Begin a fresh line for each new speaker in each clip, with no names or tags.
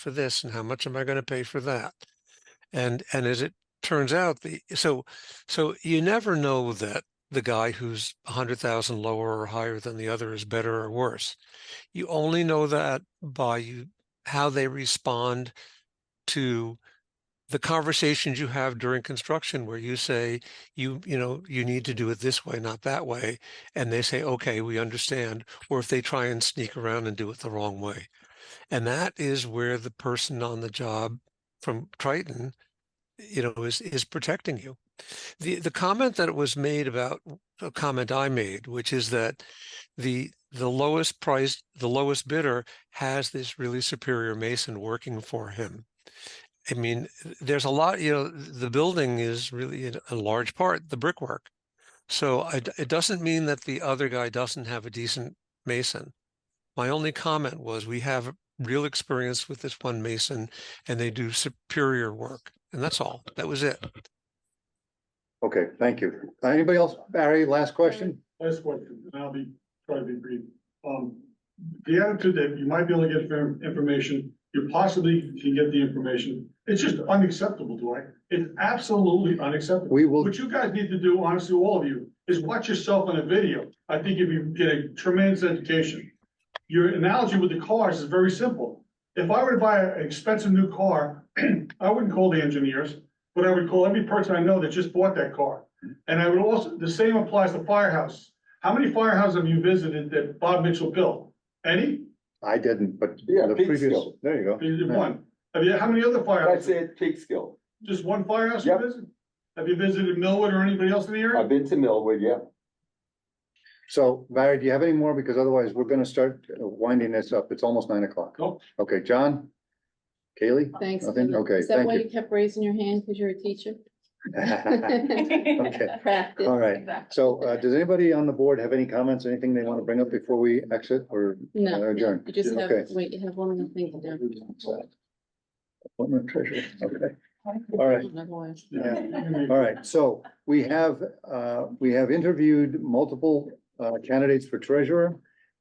for this and how much am I going to pay for that? And and as it turns out, the so so you never know that the guy who's a hundred thousand lower or higher than the other is better or worse. You only know that by you how they respond to the conversations you have during construction where you say you you know you need to do it this way not that way and they say okay we understand or if they try and sneak around and do it the wrong way and that is where the person on the job from triton you know is is protecting you the the comment that was made about a comment i made which is that the the lowest price the lowest bidder has this really superior mason working for him I mean, there's a lot, you know, the building is really in a large part the brickwork. So I, it doesn't mean that the other guy doesn't have a decent mason. My only comment was we have real experience with this one mason and they do superior work. And that's all. That was it.
Okay, thank you. Uh, Anybody else? Barry, last question?
Last question, and I'll be, try to be brief. Um, the attitude that you might be able to get infor- information, you possibly can get the information, it's just unacceptable, Dwight. It's absolutely unacceptable.
We will,
What you guys need to do, honestly, all of you, is watch yourself on a video. I think if you get a tremendous education. Your analogy with the cars is very simple. If I were to buy an expensive new car, I wouldn't call the engineers, but I would call every person I know that just bought that car. And I would also, the same applies to firehouses. How many firehouses have you visited that Bob Mitchell built? Any?
I didn't, but
Yeah,
the
Pete's
previous,
still.
there you go.
There's One. Have you, how many other
That's
firehouses?
it, Peekskill.
Just one firehouse you
Yep.
visited? Have you visited Millwood or anybody else in the area?
I've been to Millwood, yeah.
So Barry, do you have any more? Because otherwise we're gonna start winding this up. It's almost nine o'clock.
Nope.
Okay, John? Kaylee?
Thanks.
Nothing?
Peter.
Okay,
Is that
thank
why
you.
you kept raising your hand because you're a teacher?
Okay,
Practice.
all right. So, uh, does anybody on the board have any comments, anything they wanna bring up before we exit or
No,
or adjourn?
you just have,
Okay.
wait, you have one more thing to do.
Appointment treasurer, okay. All right.
Otherwise-
Yeah. All right, so we have, uh, we have interviewed multiple, uh, candidates for treasurer.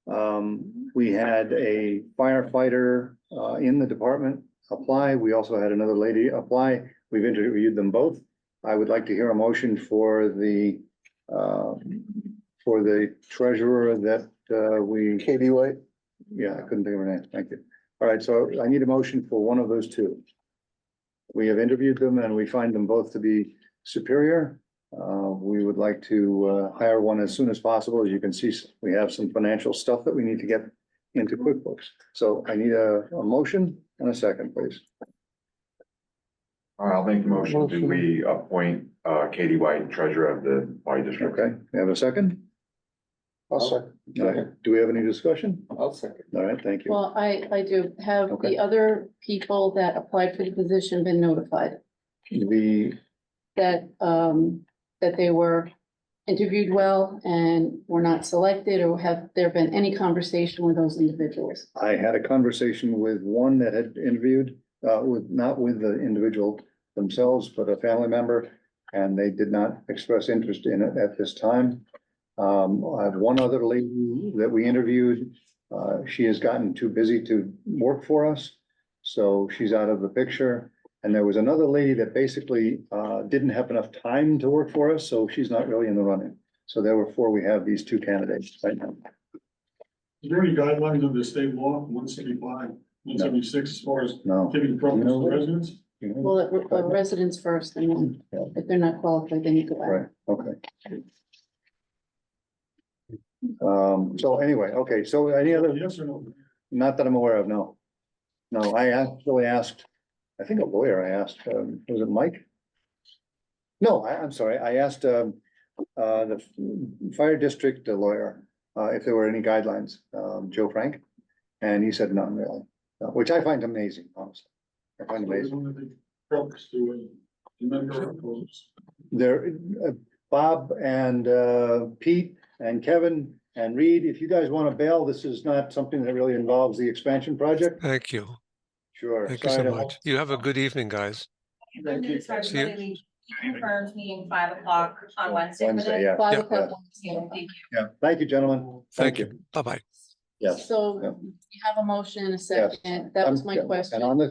Um, we had a firefighter, uh, in the department apply. We also had another lady apply. We've interviewed them both. I would like to hear a motion for the, uh, for the treasurer that, uh, we,
Katie White?
yeah, I couldn't think of her name. Thank you. All right, so I need a motion for one of those two. We have interviewed them and we find them both to be superior. Uh, we would like to uh, hire one as soon as possible. As you can see, we have some financial stuff that we need to get into QuickBooks. So I need a, a motion and a second, please.
All right, I'll make the motion. Do we appoint uh, Katie White, treasurer of the White District?
Okay, we have a second?
I'll second.
All right, do we have any discussion?
I'll second.
All right, thank you.
Well, I, I do. Have
Okay.
the other people that applied for the position been notified
The,
that, um, that they were interviewed well and were not selected or have there been any conversation with those individuals?
I had a conversation with one that had interviewed, uh, with, not with the individual themselves, but a family member. And they did not express interest in it at this time. Um, I have one other lady that we interviewed. Uh, she has gotten too busy to work for us, so she's out of the picture. And there was another lady that basically, uh, didn't have enough time to work for us, so she's not really in the running. So therefore, we have these two candidates right now.
Is there any guidelines under the state law, one seventy-five, one seventy-six, as far as
No.
giving preference to residents?
Well, it- uh, residents first and then
Yeah.
if they're not qualified, then you go back.
Right, okay. Um, so anyway, okay, so any other,
Yes or no?
not that I'm aware of, no. No, I actually asked, I think a lawyer I asked, um, was it Mike? No, I, I'm sorry, I asked, um, uh, the fire district lawyer, uh, if there were any guidelines, um, Joe Frank. And he said none really, uh, which I find amazing, honestly. I find amazing.
One of the preference to uh, a member opposed.
there, uh, Bob and uh, Pete and Kevin and Reed, if you guys want to bail, this is not something that really involves the expansion project.
Thank you.
Sure.
Thank you
sorry
so
to-
much. You have a good evening, guys.
Thank you.
Sorry,
See you.
everybody, we confirmed meeting five o'clock on Wednesday. for
Wednesday,
the-
yeah.
Five
Yeah.
o'clock.
Yeah, thank you.
Yeah, thank you, gentlemen.
Thank you. Bye-bye.
Yes.
So
Yeah.
we have a motion and a
Yes.
second. That was
Um,
my
yeah,
question.
And on the